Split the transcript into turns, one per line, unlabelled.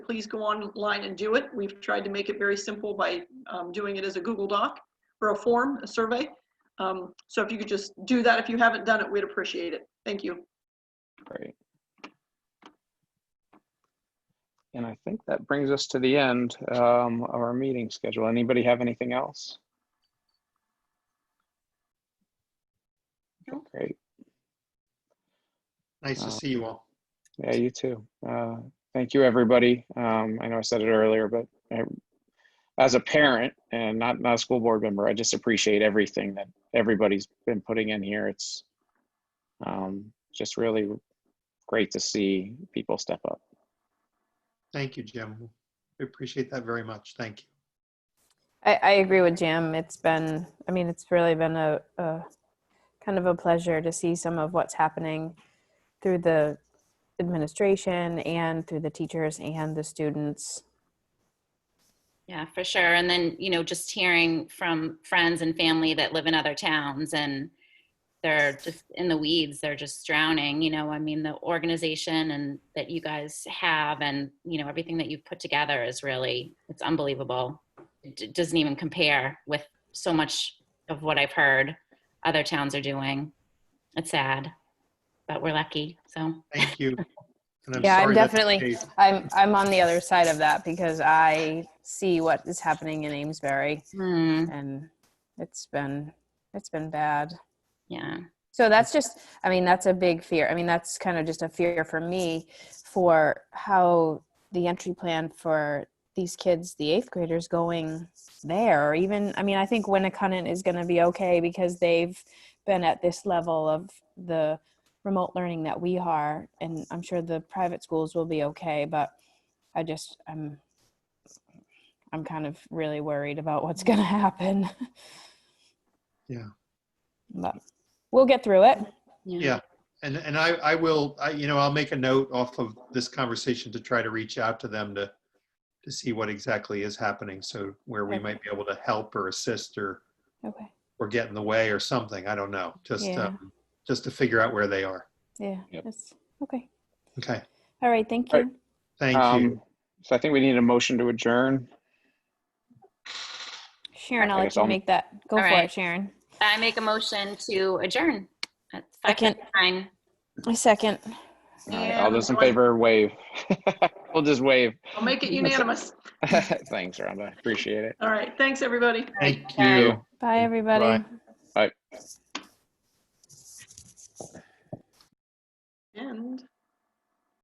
please go online and do it. We've tried to make it very simple by um, doing it as a Google Doc or a form, a survey. Um, So if you could just do that, if you haven't done it, we'd appreciate it. Thank you.
Great. And I think that brings us to the end um, of our meeting schedule. Anybody have anything else?
No.
Great.
Nice
Uh,
to see you all.
Yeah, you too. Uh, Thank you, everybody. Um, I know I said it earlier, but I- as a parent and not, not a school board member, I just appreciate everything that everybody's been putting in here. It's um, just really great to see people step up.
Thank you, Jim. We appreciate that very much. Thank you.
I, I agree with Jim. It's been, I mean, it's really been a, a kind of a pleasure to see some of what's happening through the administration and through the teachers and the students.
Yeah, for sure. And then, you know, just hearing from friends and family that live in other towns and they're just in the weeds, they're just drowning, you know, I mean, the organization and that you guys have and, you know, everything that you've put together is really, it's unbelievable. It d- doesn't even compare with so much of what I've heard other towns are doing. It's sad, but we're lucky. So,
Thank you. And
Yeah, I'm
sorry that's the
definitely-
case.
I'm, I'm on the other side of that because I see what is happening in Amesbury
hmm,
and it's been, it's been bad.
yeah.
So that's just, I mean, that's a big fear. I mean, that's kind of just a fear for me for how the entry plan for these kids, the eighth graders, going there. Or even, I mean, I think Winnicott is going to be okay because they've been at this level of the remote learning that we are. And I'm sure the private schools will be okay. But I just, I'm, I'm kind of really worried about what's going to happen.
Yeah.
But we'll get through it.
Yeah. And, and I, I will, I, you know, I'll make a note off of this conversation to try to reach out to them to, to see what exactly is happening. So where we
Okay.
might be able to help or assist or,
Okay.
or get in the way or something. I don't know. Just,
Yeah.
um, just to figure out where they are.
Yeah.
Yep.
That's okay.
Okay.
All right. Thank
All
you.
right.
Thank you.
Um, So I think we need a motion to adjourn.
Sharon, I'll
I
let
guess
you
I'll-
make that. Go
All
for
right.
it, Sharon.
I make a motion to adjourn. at
I can.
5:59.
A second.
All right, All those in favor, wave. We'll just wave.
I'll make it unanimous.
Thanks, Rhonda. Appreciate it.
All right, thanks, everybody.
Thank
Bye.
you.
Bye,
Mm,
everybody.
And.